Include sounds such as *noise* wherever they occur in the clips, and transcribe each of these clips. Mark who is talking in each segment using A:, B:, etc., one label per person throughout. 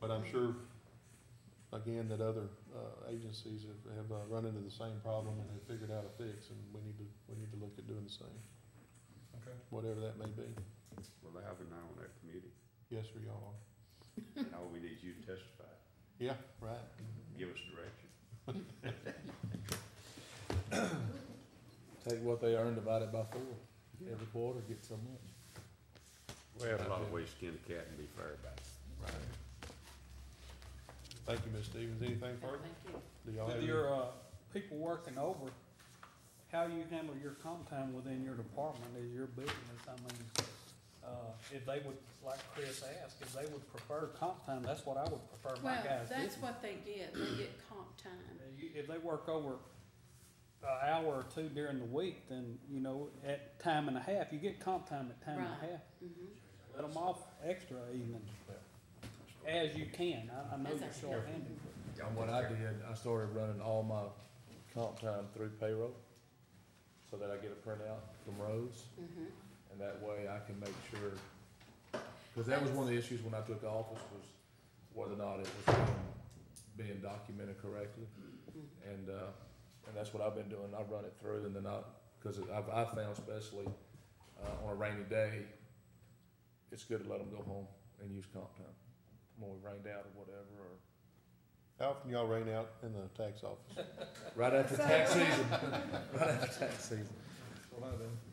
A: But I'm sure, again, that other, uh, agencies have, have, uh, run into the same problem and have figured out a fix, and we need to, we need to look at doing the same,
B: Okay.
A: whatever that may be.
C: Well, they have an eye on that committee,
A: Yes, sir, y'all are.
C: and all we need is you to testify,
A: Yeah, right.
C: give us direction.
D: Take what they earn, divide it by four, every quarter, get so much.
C: We have a lot of ways to skin a cat and be fair about it.
A: Thank you, Ms. Stevens. Anything
E: No,
A: further?
E: Thank you.
A: Do y'all have
B: With
A: any-
B: your, uh, people working over, how you handle your comp time within your department is your business, I mean, uh, if they would, like Chris asked, if they would prefer comp time, that's what I would prefer my
E: Well,
B: guys
E: that's
B: getting.
E: what they get, they get comp time.
B: Uh, you- If they work over an hour or two during the week, then, you know, at time and a half, you get comp time at time and
E: Right.
B: a half.
E: Mhm.
B: Let them off extra even, as you can, I, I know
E: That's
B: you're
E: okay.
B: short-handed.
D: And what I did, I started running all my comp time through payroll, so that I get a printout from Rose,
E: Mhm.
D: and that way I can make sure. Cause that was one of the issues when I took office was whether or not it was being- being documented correctly. And, uh, and that's what I've been doing, I run it through and then I, cause I've, I found especially, uh, on a rainy day, it's good to let them go home and use comp time, when we rained out or whatever, or
A: How often y'all rain out in the tax office?
D: *laughs* Right after tax season. *laughs* Right after tax season.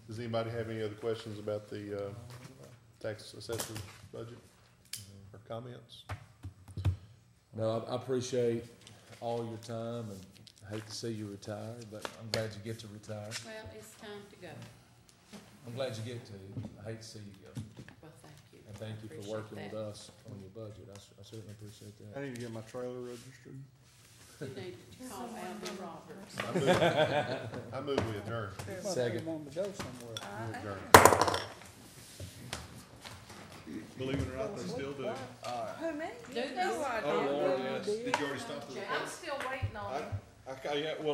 A: Does anybody have any other questions about the, uh, tax assessor's budget or comments?
D: No, I, I appreciate all your time and I hate to see you retire, but I'm glad you get to retire.
E: Well, it's time to go,
D: I'm glad you get to. I hate to see you go.
E: well, thank you.
D: And thank you for
E: Appreciate
D: working
E: that.
D: with us on your budget. I, cer- I certainly appreciate
F: I
D: that.
F: need to get my trailer registered.
E: You need to call Alvin Roberts.
A: I move- I move we adjourn.
B: Must be
D: Second.
B: wanting to go somewhere.
A: We adjourn.
F: Believe it or not, they still do.
G: Who, me?
E: Do they?
G: No, I
F: Oh,
G: don't.
F: Lord, yes.
G: Did
F: you already stop
G: I'm still waiting on it.
F: I, I, yeah, well,